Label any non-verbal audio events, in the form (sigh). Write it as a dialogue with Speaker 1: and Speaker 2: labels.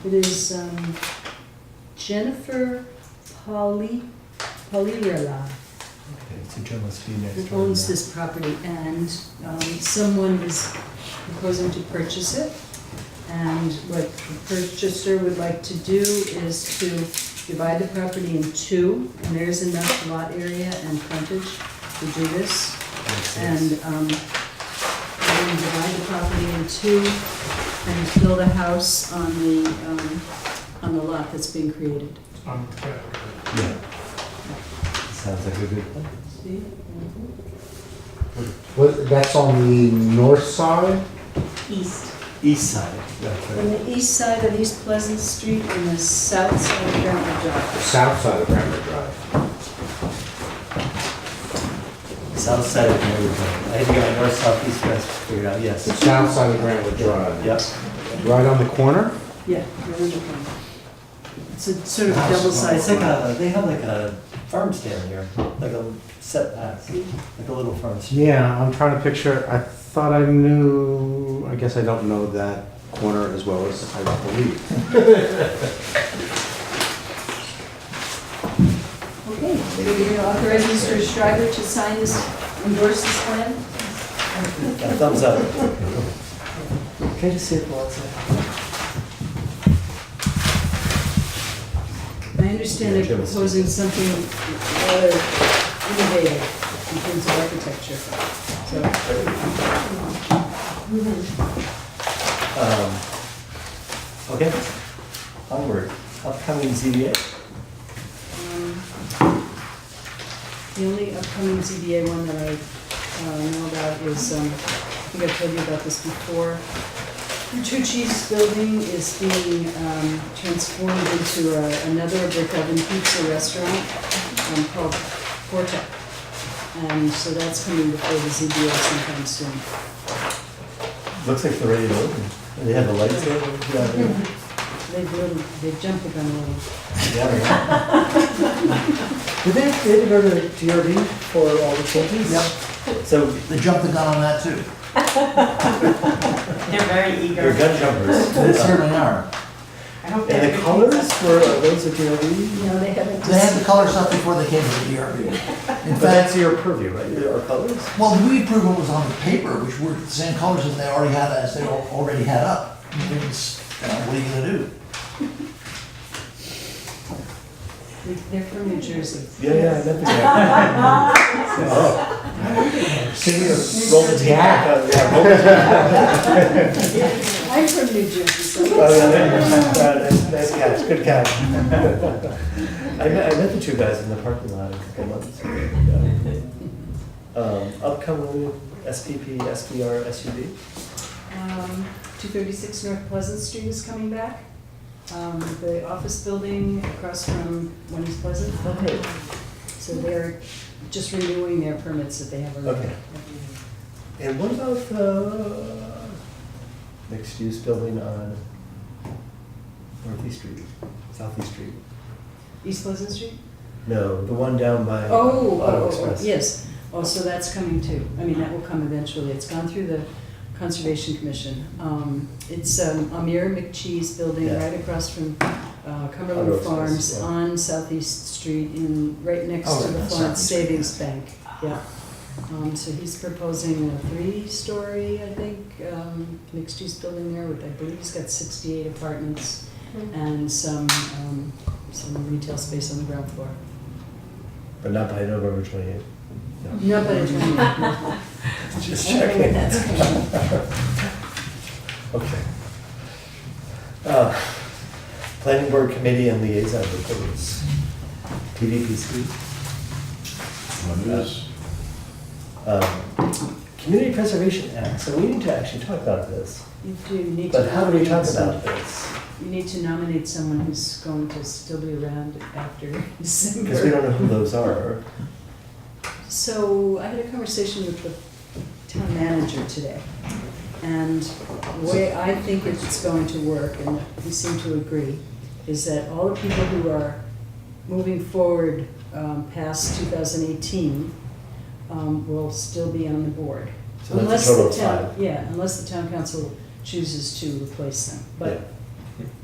Speaker 1: It is um, Jennifer Pauli, Paulirla,
Speaker 2: Okay, It's a journalist fee next
Speaker 1: who
Speaker 2: door.
Speaker 1: owns this property, and um, someone is proposing to purchase it. And what the purchaser would like to do is to divide the property in two, and there is enough lot area and frontage to do this.
Speaker 2: Yes, yes.
Speaker 1: and um, then divide the property in two and build a house on the, um, on the lot that's being created.
Speaker 3: Um, yeah,
Speaker 2: Yeah. Sounds like a good plan.
Speaker 1: See?
Speaker 4: What, that's on the north side?
Speaker 1: East.
Speaker 2: East side. That's
Speaker 1: On
Speaker 2: right.
Speaker 1: the east side of East Pleasant Street and the south side of Granville Drive.
Speaker 4: South side of Granite Drive.
Speaker 2: South side of Mary Drive. I had to go north, south, east, west, to figure it out, yes.
Speaker 4: South side of Granite Drive.
Speaker 2: Yep.
Speaker 4: Right on the corner?
Speaker 1: Yeah, you're in the corner. It's a sort of
Speaker 2: House.
Speaker 1: double
Speaker 2: It's like
Speaker 1: sided lot.
Speaker 2: a, they have like a farm stand here, like a setback, like a little farm stand.
Speaker 4: Yeah, I'm trying to picture, I thought I knew, I guess I don't know that corner as well as I believe.
Speaker 1: Okay, so you're going to authorize Mr. Schreiber to sign this, endorse this plan?
Speaker 2: Yeah, Thumbs up. Can I just see it for one second?
Speaker 1: I understand
Speaker 2: Yeah,
Speaker 1: they're
Speaker 2: Jim is-
Speaker 1: proposing something rather innovative in terms of architecture. So,
Speaker 2: Um, Okay. Onward. Upcoming ZBA.
Speaker 1: um, The only upcoming ZBA one that I uh, know about is, um, I think I told you about this before. Bertucci's building is being um, transformed into a- another brick oven pizza restaurant um, called Porta. And so that's coming before the ZBA sometime soon.
Speaker 2: Looks like they're ready to open. And They have the lights there. Yeah, they-
Speaker 1: They've really, they've jumped the gun a little.
Speaker 2: Yeah. Did they, they had to go to the TRD for all the changes? Yep. So
Speaker 5: They jumped the gun on that too.
Speaker 6: They're very
Speaker 2: they're
Speaker 6: eager.
Speaker 2: gun jumpers.
Speaker 5: They certainly are.
Speaker 6: I hope they
Speaker 2: And the
Speaker 6: have
Speaker 2: colors
Speaker 6: good pizza.
Speaker 2: were, uh, those are TRD?
Speaker 1: No, they haven't.
Speaker 5: They had the color stuff before they came to the DRB. In
Speaker 2: But
Speaker 5: fact,
Speaker 2: that's your purview, right? There are colors?
Speaker 5: well, we approved what was on the paper, which were the same colors as they already had, as they al- already had up. I mean, it's, you know, What are you gonna do?
Speaker 1: They're from New Jersey.
Speaker 2: Yeah, yeah, I meant that. (laughs) Oh. Roll the tape back up, yeah, roll the tape.
Speaker 1: I'm from New Jersey, so.
Speaker 2: Oh, yeah, there you go. Uh, Nice nice catch, good catch. (laughs) I met, I met the two guys in the parking lot a couple months ago. Yeah. Um, Upcoming SPP, SBR, SUV?
Speaker 1: Um, 236 North Pleasant Street is coming back. Um, The office building across from Wendy's Pleasant.
Speaker 2: Okay.
Speaker 1: So they're just renewing their permits that they have already.
Speaker 2: Okay. And what about the mixed-use building on Northeast Street, Southeast Street?
Speaker 1: East Pleasant Street?
Speaker 2: No, the one down by uh,
Speaker 1: Oh,
Speaker 2: Auto
Speaker 1: oh, oh,
Speaker 2: Express.
Speaker 1: yes. Oh, so that's coming too. I mean, that will come eventually. It's gone through the Conservation Commission. Um, It's um, Amir McChee's building
Speaker 2: Yeah.
Speaker 1: right across from uh,
Speaker 2: Auto
Speaker 1: Cumberland
Speaker 2: Express,
Speaker 1: Farms
Speaker 2: yeah.
Speaker 1: on Southeast Street in, right next
Speaker 5: Oh,
Speaker 1: to the
Speaker 5: that's
Speaker 1: Florence
Speaker 5: Southeast Street,
Speaker 1: Savings Bank. Yeah. Um, So he's proposing a three-story, I think, um, mixed-use building there with, I believe he's got 68 apartments and some, um, some retail space on the ground floor.
Speaker 2: But not by November twenty-eighth.
Speaker 1: No, but it's
Speaker 2: Just
Speaker 1: I don't know what
Speaker 2: checking.
Speaker 1: that's called.
Speaker 2: Okay. Uh, Planning Board Committee and Liaison Reports. PVPC.
Speaker 7: What is,
Speaker 2: Um, Community Preservation Act, so we need to actually talk about this.
Speaker 1: You do need to.
Speaker 2: But how do we talk
Speaker 1: nominate some-
Speaker 2: about this?
Speaker 1: You need to nominate someone who's going to still be around after (laughs)
Speaker 2: Because we
Speaker 1: December.
Speaker 2: don't know who those are.
Speaker 1: So I had a conversation with the town manager today. And the way I think it's going to work, and we seem to agree, is that all the people who are moving forward um, past 2018 um, will still be on the board.
Speaker 2: So that's a
Speaker 1: unless
Speaker 2: total
Speaker 1: the
Speaker 2: of
Speaker 1: town
Speaker 2: five.
Speaker 1: Yeah, unless the town council chooses to replace them.
Speaker 2: Yeah.
Speaker 1: But